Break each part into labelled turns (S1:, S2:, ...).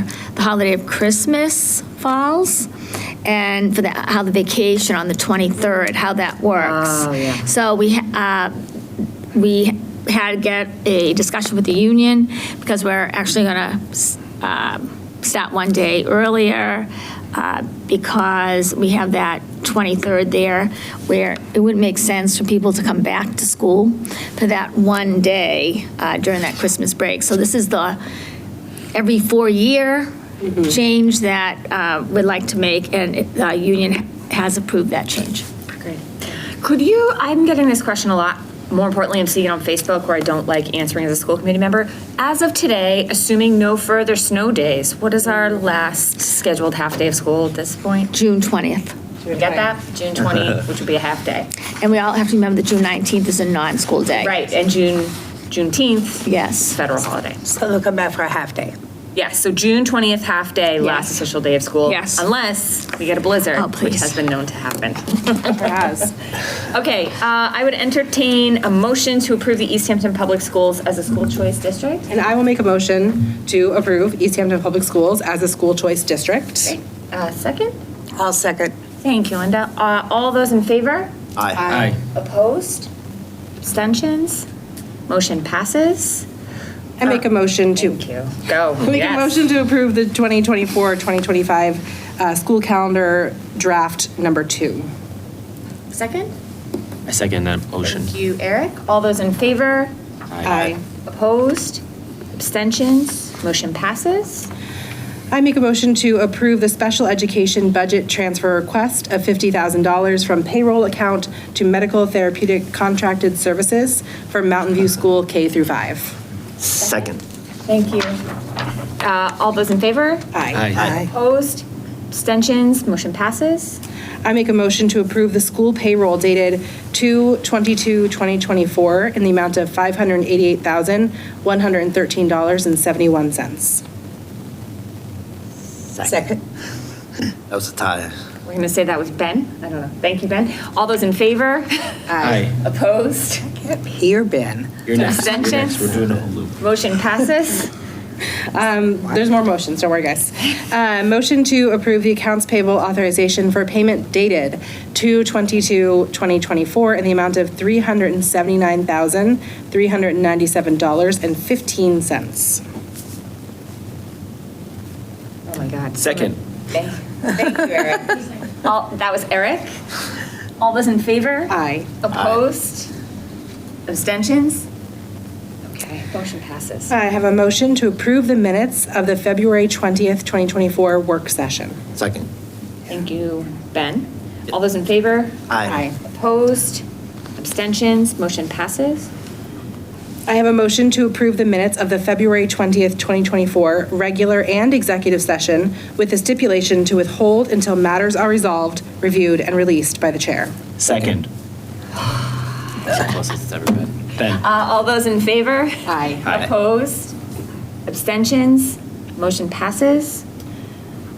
S1: the holiday of Christmas falls, and for the, how the vacation on the 23rd, how that works.
S2: Oh, yeah.
S1: So we, uh, we had to get a discussion with the union, because we're actually going to start one day earlier, uh, because we have that 23rd there, where it wouldn't make sense for people to come back to school for that one day uh, during that Christmas break. So this is the, every four-year change that uh, we'd like to make, and the union has approved that change.
S2: Great. Could you, I'm getting this question a lot. More importantly, I'm seeing it on Facebook where I don't like answering as a school committee member. As of today, assuming no further snow days, what is our last scheduled half day of school at this point?
S1: June 20th.
S2: Do we get that? June 20, which would be a half day.
S1: And we all have to remember that June 19th is a non-school day.
S2: Right, and June, Juneteenth,
S1: Yes.
S2: federal holiday.
S3: So they'll come back for a half day.
S2: Yes, so June 20th, half day, last
S1: Yes.
S2: official day of school.
S1: Yes.
S2: Unless we get a
S1: Oh,
S2: blizzard, which
S1: please.
S2: has been known to happen. Okay, uh, I would entertain a motion to approve the East Hampton Public Schools as a school choice district.
S4: And I will make a motion to approve East Hampton Public Schools as a school choice district.
S2: Uh, Second?
S3: I'll second.
S2: Thank you, Linda. Uh, All those in favor?
S5: Aye.
S2: Opposed? Abstentions? Motion passes?
S4: I make a motion to,
S2: Thank you. Go.
S4: I make a
S2: Yes.
S4: motion to approve the 2024-2025 uh, school calendar draft number two.
S2: Second?
S5: I second that motion.
S2: Thank you, Eric. All those in favor?
S4: Aye.
S2: Opposed? Abstentions? Motion passes?
S4: I make a motion to approve the special education budget transfer request of $50,000 from payroll account to medical therapeutic contracted services for Mountain View School K through 5.
S5: Second.
S2: Thank you. Uh, All those in favor?
S4: Aye.
S5: Aye.
S2: Opposed? Abstentions? Motion passes?
S4: I make a motion to approve the school payroll dated 2/22/2024 in the amount of $588,113.71.
S3: Second.
S6: That was a tie.
S2: We're going to say that was Ben. I don't know. Thank you, Ben. All those in favor?
S5: Aye.
S2: Opposed?
S3: Here, Ben.
S5: You're next. You're next.
S2: Abstentions?
S5: We're doing a whole loop.
S2: Motion passes?
S4: Um, There's more motions, don't worry, guys. Uh, Motion to approve the accounts payable authorization for payment dated 2/22/2024 in the amount of $379,397.15.
S2: Oh, my God.
S5: Second.
S2: Thank thank you, Eric. All- That was Eric. All those in favor?
S4: Aye.
S2: Opposed? Abstentions? Okay, motion passes.
S4: I have a motion to approve the minutes of the February 20th, 2024 work session.
S6: Second.
S2: Thank you, Ben. All those in favor?
S6: Aye.
S2: Opposed? Abstentions? Motion passes?
S4: I have a motion to approve the minutes of the February 20th, 2024 regular and executive session with the stipulation to withhold until matters are resolved, reviewed, and released by the chair.
S5: Second. That's the closest it's ever been. Ben.
S2: Uh, All those in favor?
S4: Aye.
S5: Aye.
S2: Opposed? Abstentions? Motion passes?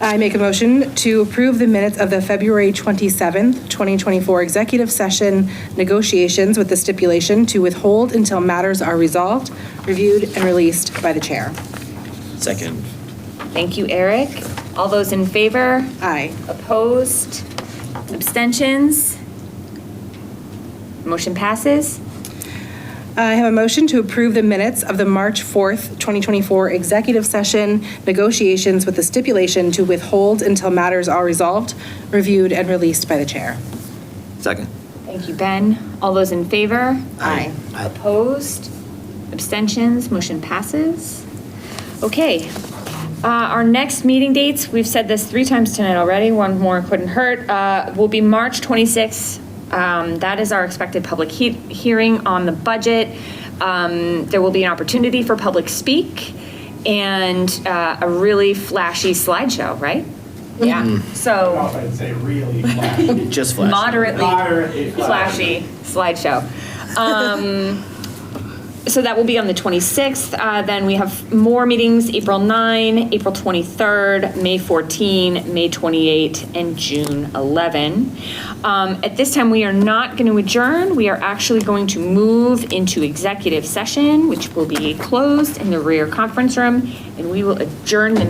S4: I make a motion to approve the minutes of the February 27th, 2024 executive session negotiations with the stipulation to withhold until matters are resolved, reviewed, and released by the chair.
S5: Second.
S2: Thank you, Eric. All those in favor?
S4: Aye.
S2: Opposed? Abstentions? Motion passes?
S4: I have a motion to approve the minutes of the March 4th, 2024 executive session negotiations with the stipulation to withhold until matters are resolved, reviewed, and released by the chair.
S6: Second.
S2: Thank you, Ben. All those in favor?
S4: Aye.
S6: Aye.
S2: Opposed? Abstentions? Motion passes? Okay. Uh, Our next meeting dates, we've said this three times tonight already, one more couldn't hurt, uh, will be March 26th. Um, That is our expected public he- hearing on the budget. Um, There will be an opportunity for public speak and uh, a really flashy slideshow, right? Yeah. So
S7: off, I'd say really flashy.
S5: Just flash.
S2: moderately
S7: Moderately
S2: flashy
S7: flashy.
S2: slideshow. Um, So that will be on the 26th. Uh, Then we have more meetings, April 9, April 23rd, May 14, May 28, and June 11. Um, At this time, we are not going to adjourn. We are actually going to move into executive session, which will be closed in the rear conference room, and we will adjourn the